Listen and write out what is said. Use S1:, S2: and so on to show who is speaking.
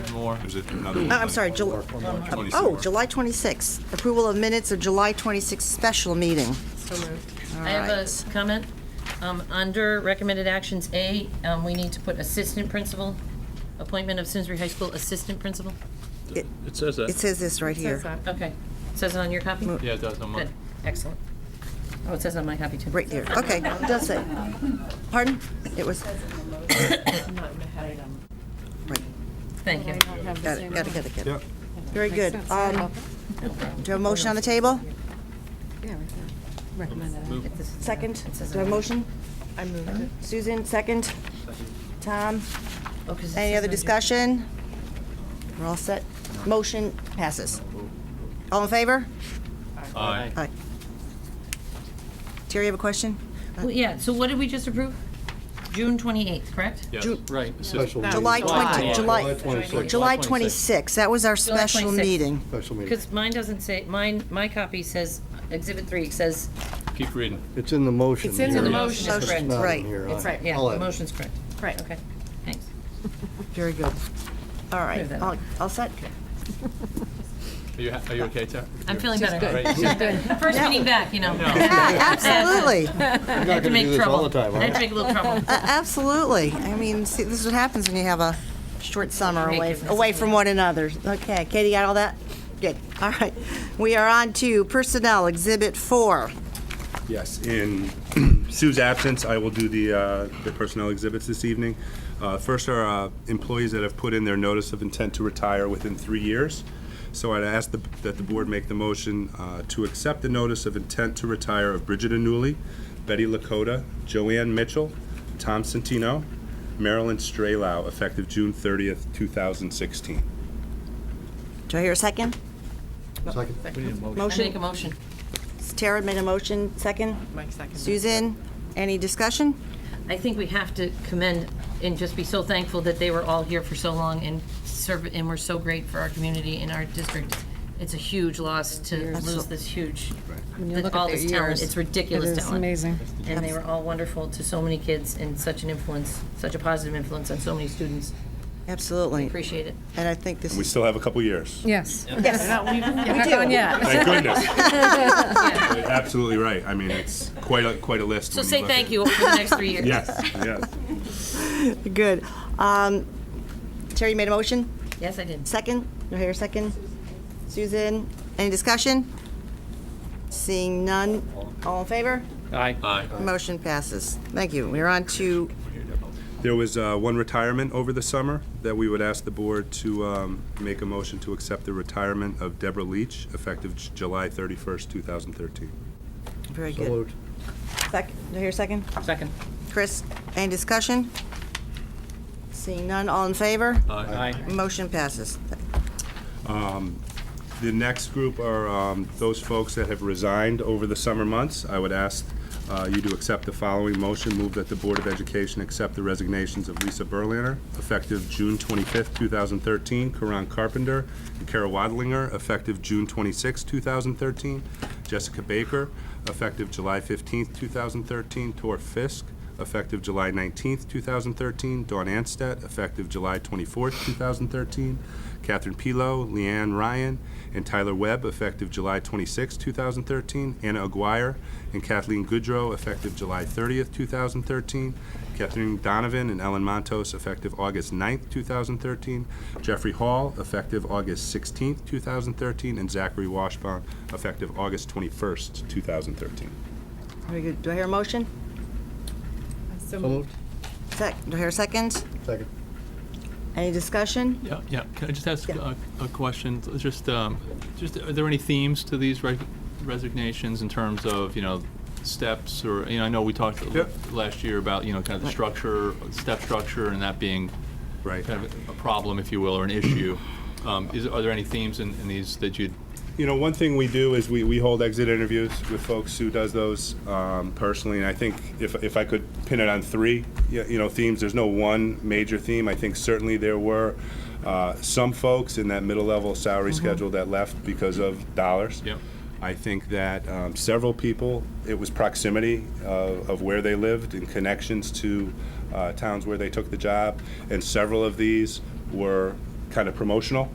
S1: more? There's another one.
S2: Uh, I'm sorry, July, oh, July 26th. Approval of minutes of July 26th special meeting.
S3: So moved.
S2: All
S4: I have
S2: right.
S4: a s- comment. Um, Under recommended actions A, um, we need to put assistant principal, appointment of Simsbury High School assistant principal.
S1: It says
S2: It
S1: that.
S2: says this right
S3: Says
S2: here,
S3: that.
S4: Okay. Says it on your copy?
S1: Yeah, it does, on mine.
S4: Good, excellent. Oh, it says on my copy too.
S2: right here. Okay, it does say. Pardon? It was, right,
S4: Thank you.
S2: got it, got it, got it, got it.
S1: Yep.
S2: Very good. Um, Do you have a motion on the table? Second? Do you have a motion?
S3: I moved it.
S2: Susan, second? Tom?
S4: Oh, 'cause it
S2: Any
S4: says
S2: other
S4: on your-
S2: discussion? We're all set. Motion passes. All in favor?
S1: Aye.
S2: Aye. Terry, you have a question? Uh,
S4: Well, Yeah, so what did we just approve? June 28th, correct?
S1: Yes.
S2: Ju-
S5: Right.
S1: Special
S3: That
S2: July
S3: was
S2: 20, July, July
S1: 26th.
S2: 26th, that was our special
S4: 26th.
S2: meeting.
S5: Special meeting.
S4: Because mine doesn't say, mine, my copy says, Exhibit 3 says,
S1: Keep reading.
S5: It's in the motion.
S3: It's in the
S5: here.
S3: motion.
S5: It's
S4: Motion.
S5: not in
S2: Right.
S5: here.
S3: It's
S5: I-
S3: right,
S4: yeah,
S5: I'll
S4: the
S5: add it.
S4: motion's correct.
S3: Right.
S4: Okay, thanks.
S2: Very good. All right,
S4: Move that
S2: all- all set?
S1: Are you, ha- are you okay, Tara?
S4: I'm feeling better.
S1: Right.
S4: First meeting back, you know.
S2: Yeah, absolutely,
S5: You're
S4: I had
S5: not
S4: to
S5: gonna do
S4: make
S5: this all the
S4: trouble.
S5: time,
S4: I had
S5: are
S4: to
S5: you?
S4: make a little trouble.
S2: A- absolutely. I mean, see, this is what happens when you have a short summer
S4: Hey,
S2: away,
S4: goodness.
S2: away from one another. Okay, Katie, got all that? Good, all right. We are on to Personnel Exhibit 4.
S6: Yes, in Sue's absence, I will do the, uh, the personnel exhibits this evening. Uh, First are uh, employees that have put in their notice of intent to retire within three years. So I'd ask the- that the board make the motion uh, to accept the notice of intent to retire of Bridget Anuli, Betty Lakota, Joanne Mitchell, Tom Santino, Marilyn Straylau, effective June 30th, 2016.
S2: Do I hear a second?
S5: Second.
S4: I make a
S2: Motion,
S4: motion.
S2: Tara made a motion, second.
S3: Mike seconded.
S2: Susan, any discussion?
S4: I think we have to commend and just be so thankful that they were all here for so long and serve, and were so great for our community and our district. It's a huge loss to lose this huge,
S7: look at
S4: all
S7: their
S4: this talent.
S7: years,
S4: It's ridiculous
S7: it is
S4: talent.
S7: amazing.
S4: And they were all wonderful to so many kids and such an influence, such a positive influence on so many students.
S2: Absolutely.
S4: Appreciate it.
S2: And I think this
S6: We
S2: is,
S6: still have a couple years.
S7: Yes.
S2: we do.
S6: Thank goodness. You're Absolutely right. I mean, it's quite a, quite a list.
S4: So say thank you for the next three years.
S6: Yes, yes.
S2: Good. Um, Terry made a motion,
S4: Yes, I did.
S2: second. Do I hear a second? Susan, any discussion? Seeing none, all in favor?
S5: Aye.
S1: Aye.
S2: Motion passes. Thank you. We're on to,
S6: There was uh, one retirement over the summer that we would ask the board to um, make a motion to accept the retirement of Deborah Leach, effective J- July 31st, 2013.
S2: very
S5: So
S2: good.
S5: moved.
S2: Second, do I hear a second?
S4: Second.
S2: Chris, any discussion? Seeing none, all in favor?
S5: Aye.
S2: Motion passes.
S6: The next group are um, those folks that have resigned over the summer months. I would ask uh, you to accept the following motion. Move that the Board of Education accept the resignations of Lisa Berliner, effective June 25th, 2013, Karan Carpenter and Kara Wadlinger, effective June 26th, 2013, Jessica Baker, effective July 15th, 2013, Tor Fisk, effective July 19th, 2013, Dawn Anstett, effective July 24th, 2013, Catherine Pilo, Leanne Ryan, and Tyler Webb, effective July 26th, 2013, Anna Aguirre and Kathleen Goodrow, effective July 30th, 2013, Kathleen Donovan and Ellen Montos, effective August 9th, 2013, Jeffrey Hall, effective August 16th, 2013, and Zachary Washbaum, effective August 21st, 2013.
S2: Very good. Do I hear a motion?
S3: So
S5: So
S3: moved.
S5: moved.
S2: Sec, do I hear a second?
S5: Second.
S2: Any discussion?
S1: Yeah, yeah. Can I just ask a a question? Just, um, just, are there any themes to these re- resignations in terms of, you know, steps or, you know, I know we talked
S6: Yep.
S1: last year about, you know, kind of the structure, step structure and that being
S6: Right.
S1: kind of a problem, if you will, or an issue. Um, Is, are there any themes in in these that you'd
S6: you know, one thing we do is we, we hold exit interviews with folks who does those um, personally, and I think if, if I could pin it on three, y- you know, themes. There's no one major theme. I think certainly there were uh, some folks in that middle level salary schedule that left because of dollars.
S1: Yep.
S6: I think that um, several people, it was proximity of, of where they lived and connections to uh, towns where they took the job, and several of these were kind of promotional.